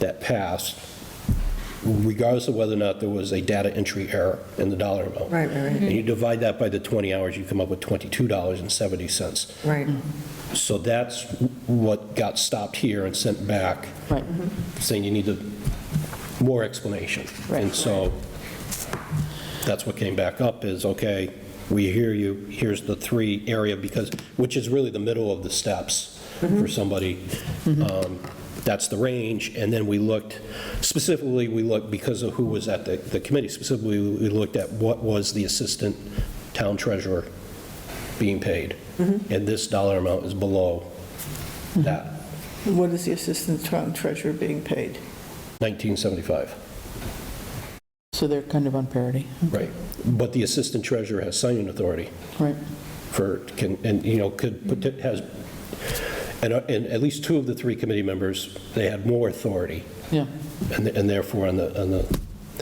that passed, regardless of whether or not there was a data entry error in the dollar amount. Right, right, right. And you divide that by the 20 hours, you come up with $22.70. Right, So that's what got stopped here and sent back, Right. Mm-hmm. saying you need to- more explanation. And Right. so that's what came back up is, okay, we hear you, here's the three area, because, which is really the middle of the steps for somebody. Um, That's the range, and then we looked, specifically, we looked, because of who was at the the committee, specifically, we looked at what was the assistant town treasurer being paid. And this dollar amount is below that, What is the assistant town treasurer being paid? 1975. So they're kind of on parity. Right. But the assistant treasurer has signing authority Right. for, can, and, you know, could, put- has, and, uh, and at least two of the three committee members, they had more authority, Yeah. and and therefore, on the, on the,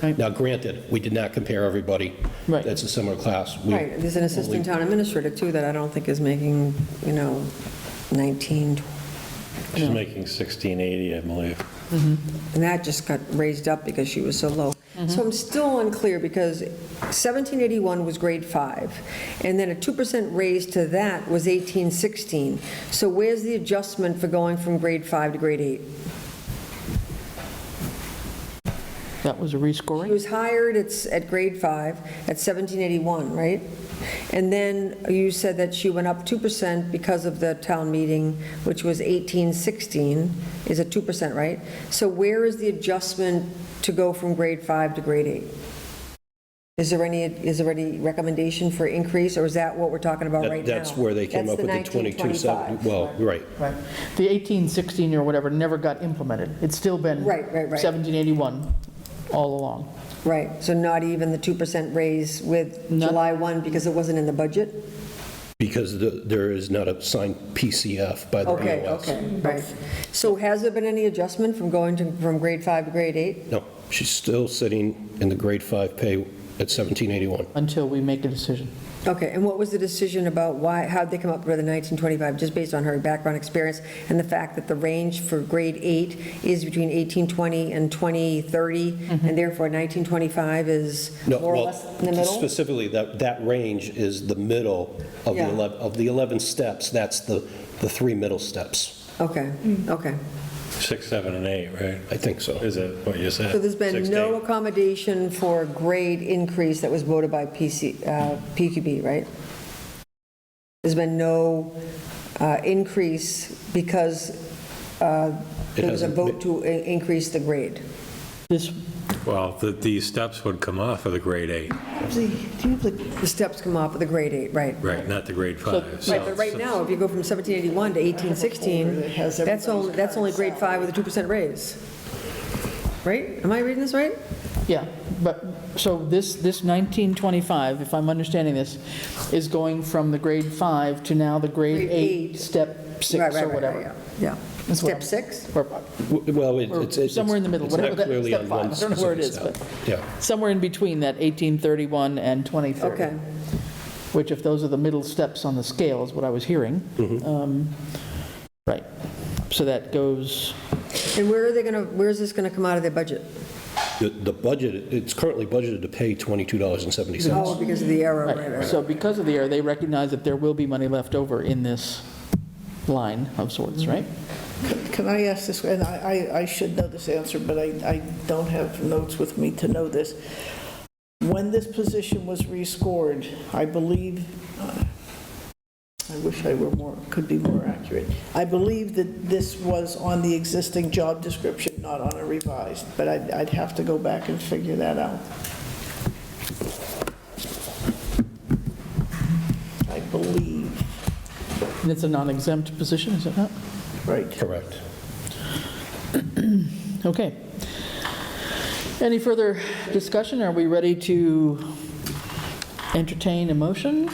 Right. now granted, we did not compare everybody. Right. That's a similar class. We- right. There's an assistant town administrator too that I don't think is making, you know, 19, She's making 1680, I believe. and that just got raised up because she was so low. So I'm still unclear because 1781 was grade five, and then a 2% raise to that was 1816. So where's the adjustment for going from grade five to grade eight? That was a rescoring? He was hired at, s- at grade five, at 1781, right? And then you said that she went up 2% because of the town meeting, which was 1816, is it 2%, right? So where is the adjustment to go from grade five to grade eight? Is there any, is there any recommendation for increase, or is that what we're talking about That- right now? That's where they came That's up with the 2270. 1925. Well, right. Right. The 1816 or whatever never got implemented. It's still been. Right, right, right. 1781 all along. Right, so not even the 2% raise with No. July 1 because it wasn't in the budget? Because the- there is not a signed PCF by the Okay, BOS. okay, right. So has there been any adjustment from going to, from grade five to grade eight? No, she's still sitting in the grade five pay at 1781. Until we make a decision. Okay, and what was the decision about why, how'd they come up with the 1925, just based on her background experience and the fact that the range for grade eight is between 1820 and 2030, and therefore 1925 is Mm-hmm. No, more or well, less in the middle? Specifically, that, that range is the middle of the Yeah. 11, of the 11 steps, that's the, the three middle steps. Okay, okay. Six, seven, and eight, right? I think so. Is that what you said? So there's been Six, no eight. accommodation for grade increase that was voted by PC, uh, PQB, right? There's been no uh, increase because uh, It there was a hasn't vote to i- increase the grade. This, Well, the- these steps would come off of the grade eight, The steps come off of the grade eight, right? right, not the grade five. Right, but right now, if you go from 1781 to 1816, that's only, that's only grade five with a 2% raise. Right? Am I reading this right? yeah, but, so this, this 1925, if I'm understanding this, is going from the grade five to now the grade Grade eight, eight. step Right, six right, or right, whatever. Yeah. yeah. That's what Step I'm- six? Or W- Well, it- Or it's. it's- somewhere in the middle, it's not whatever that- clearly step on one five, I don't know where it specific is, step. Yeah, Somewhere in between that 1831 and 2030. Okay. Which if those are the middle steps on the scale is what I was hearing. Um, Right. So that goes, And where are they going to, where's this going to come out of their budget? the, the budget, it's currently budgeted to pay $22.70. Oh, because of the arrow, right, right, right. right. so because of the error, they recognize that there will be money left over in this line of sorts, right? Can I ask this, and I, I I should know this answer, but I, I don't have notes with me to know this. When this position was rescored, I believe, uh, I wish I were more, could be more accurate. I believe that this was on the existing job description, not on a revised, but I'd, I'd have to go back and figure that out. I believe, And it's a non-exempt position, is it not? right. Correct. Okay. Any further discussion? Are we ready to entertain a motion?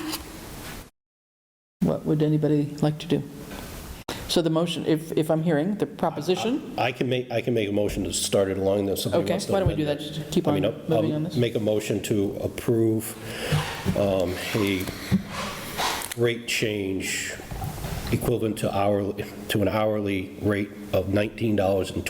What would anybody like to do? So the motion, if, if I'm hearing, the proposition, I can make, I can make a motion to start it along those. Okay, why don't we do that? Just keep on uh, moving on this? Make a motion to approve um, a rate change equivalent to hourly, to an hourly rate of $19.20